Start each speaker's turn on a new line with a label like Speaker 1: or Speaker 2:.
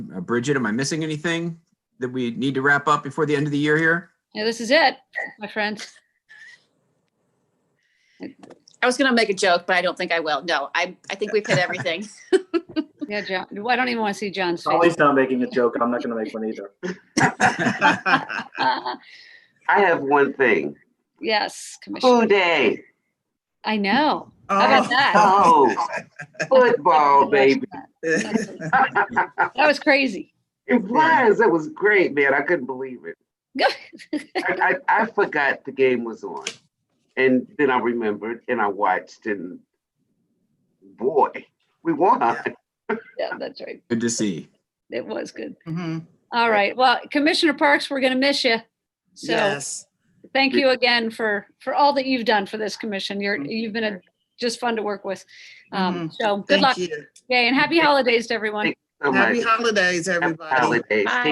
Speaker 1: Uh, Bridget, am I missing anything that we need to wrap up before the end of the year here?
Speaker 2: Yeah, this is it, my friends.
Speaker 3: I was gonna make a joke, but I don't think I will. No, I, I think we've hit everything.
Speaker 2: Yeah, John, I don't even want to see John's face.
Speaker 4: Ollie's not making a joke. I'm not going to make one either.
Speaker 2: Uh,
Speaker 5: I have one thing.
Speaker 2: Yes, Commissioner.
Speaker 5: Boo day.
Speaker 2: I know. How about that?
Speaker 5: Oh, football, baby.
Speaker 2: That was crazy.
Speaker 5: It was. It was great, man. I couldn't believe it. I, I, I forgot the game was on. And then I remembered and I watched and boy, we won.
Speaker 2: Yeah, that's right.
Speaker 1: Good to see.
Speaker 2: It was good.
Speaker 6: Mhm.
Speaker 2: All right. Well, Commissioner Parks, we're going to miss you. So
Speaker 6: Yes.
Speaker 2: thank you again for, for all that you've done for this commission. You're, you've been a, just fun to work with. Um, So good
Speaker 6: Thank
Speaker 2: luck.
Speaker 6: you.
Speaker 2: Yay, and happy holidays to everyone.
Speaker 5: So
Speaker 6: Happy
Speaker 5: much.
Speaker 6: holidays,
Speaker 5: Happy
Speaker 6: everybody.
Speaker 5: holidays.
Speaker 3: Bye.